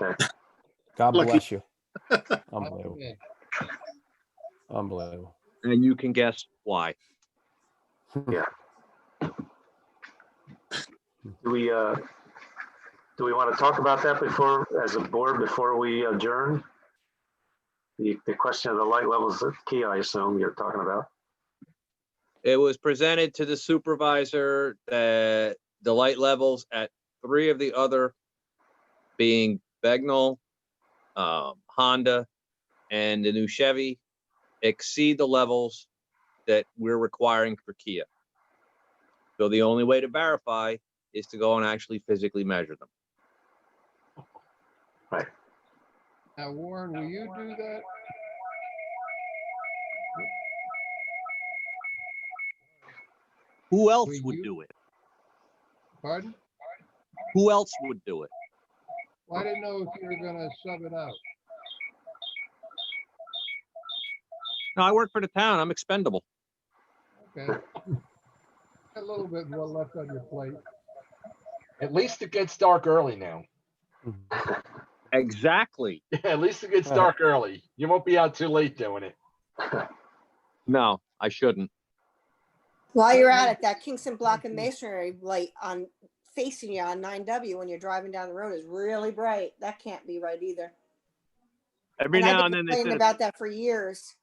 Okay. God Lucky. bless you. Unbelievable. Okay. Unbelievable. and you can guess why. Do we, uh, do we want to talk about that before, as a board, before we adjourn? The, the question of the light levels of key, I assume you're talking about. It was presented to the supervisor that the light levels at three of the other being Begnell, um, Honda, and the new Chevy exceed the levels that we're requiring for Kia. So the only way to verify is to go and actually physically measure them. Now Warren, will you do that? Who else Will would you- do it? Pardon? Who else would do it? Well, I didn't know if you were gonna sub it out. No, I work for the town. I'm expendable. Okay. A little bit more left on your plate. At least it gets dark early now. Exactly. At least it gets Uh. dark early. You won't be out too late doing it. No, I shouldn't. While you're Um, at it, that Kingston Block mm-hmm. and Masonry light on facing you on nine W when you're driving down the road is really bright. That can't be right either. Every I've now been and then they set complaining a, About that for years.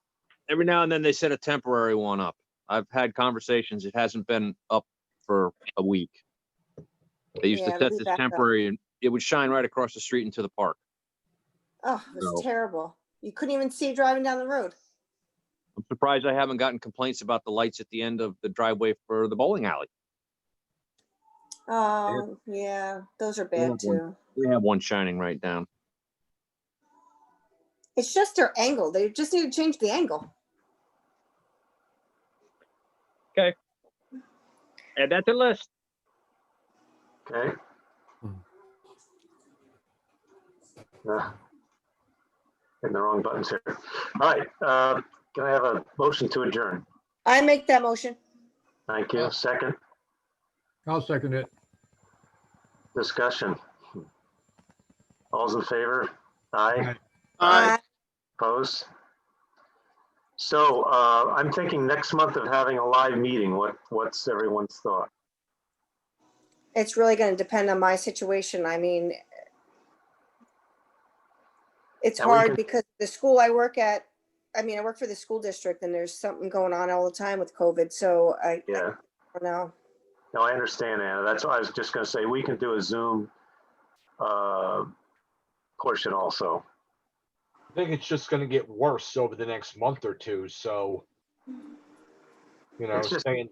every now and then they set a temporary one up. I've had conversations. It hasn't been up for a week. They used to Yeah, set we this backed up. temporary and it would shine right across the street into the park. Oh, it No. was terrible. You couldn't even see driving down the road. I'm surprised I haven't gotten complaints about the lights at the end of the driveway for the bowling alley. Oh, yeah, those are bad Horrible. too. We have one shining right down. It's just their angle. They just need to change the angle. And that's a list. Okay? Uh, Hitting the wrong buttons here. All right, uh, can I have a motion to adjourn? I make that motion. Thank you. Second, I'll second it. discussion. All's in favor? Aye. Opposed? So uh, I'm thinking next month of having a live meeting. What, what's everyone's thought? It's really gonna depend on my situation. I mean, it's And we hard can- because the school I work at, I mean, I work for the school district and there's something going on all the time with COVID, so I I Yeah, don't know. no, I understand, Anna. That's why I was just gonna say, we can do a Zoom uh, portion also. I think it's just gonna get worse over the next month or two, so. You know, It's just- saying.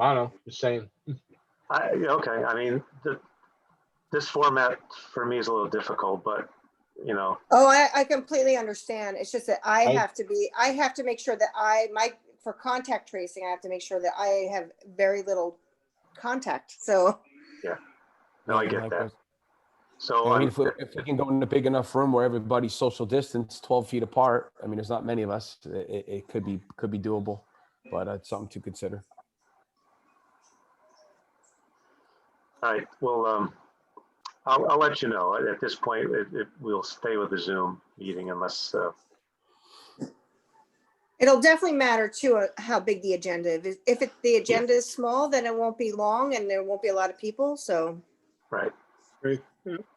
I don't know, just saying, I, okay, I mean, the, this format for me is a little difficult, but, you know, Oh, I, I completely understand. It's just that I I- have to be, I have to make sure that I, my, for contact tracing, I have to make sure that I have very little contact, so. no, I Yeah, get that. likewise. So, I I'm- mean, if we, if we can go in a big enough room where everybody's social distance, twelve feet apart, I mean, there's not many of us, it, it- it could be, could be doable. But uh, it's something to consider. all right, well, um, I'll, I'll let you know. At- At this point, it, it, we'll stay with the Zoom meeting unless, uh, It'll definitely matter too, uh, how big the agenda is. If it, the agenda is small, then it won't be long and there won't be a lot of people, so. right,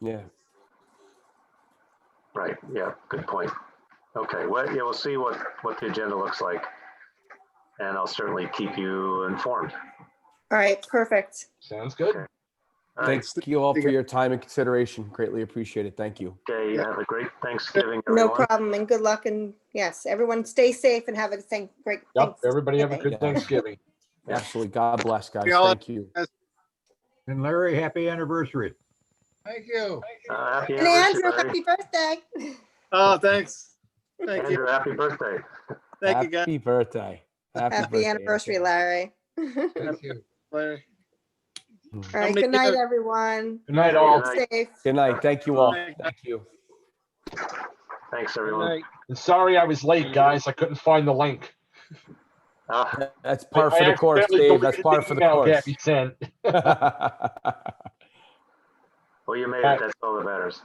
Yeah, right, yeah, good point. Okay, well, yeah, we'll see what, what the agenda looks like. And I'll certainly keep you informed. All right, perfect. sounds good. All right, thanks you all for your time and consideration. Greatly appreciate it. Thank you. Okay, have a great Thanksgiving, No everyone. problem and good luck and yes, everyone stay safe and have a thank, great. Yep, everybody have a Thanksgiving. good Thanksgiving. Absolutely. God bless, guys. Yeah, I'll- Thank you. And Larry, happy anniversary. Thank you. Uh, Happy And Andrew, anniversary. happy birthday. Oh, thanks. Thank you. Andrew, happy birthday. Thank you, guys. Happy birthday. Happy birthday, anniversary, Anthony. Larry. Thank you. Larry. All right, many good night, years? everyone. Good night, all. Good night. Safe. Good night. Thank you all. Thank you. Thank you. Thanks, everyone. And sorry I was late, guys. I couldn't find the link. Uh, That's I- par for I the course, accidentally Dave. That's deleted par for the email course. Gabby sent. Well, you made it. That's all that matters.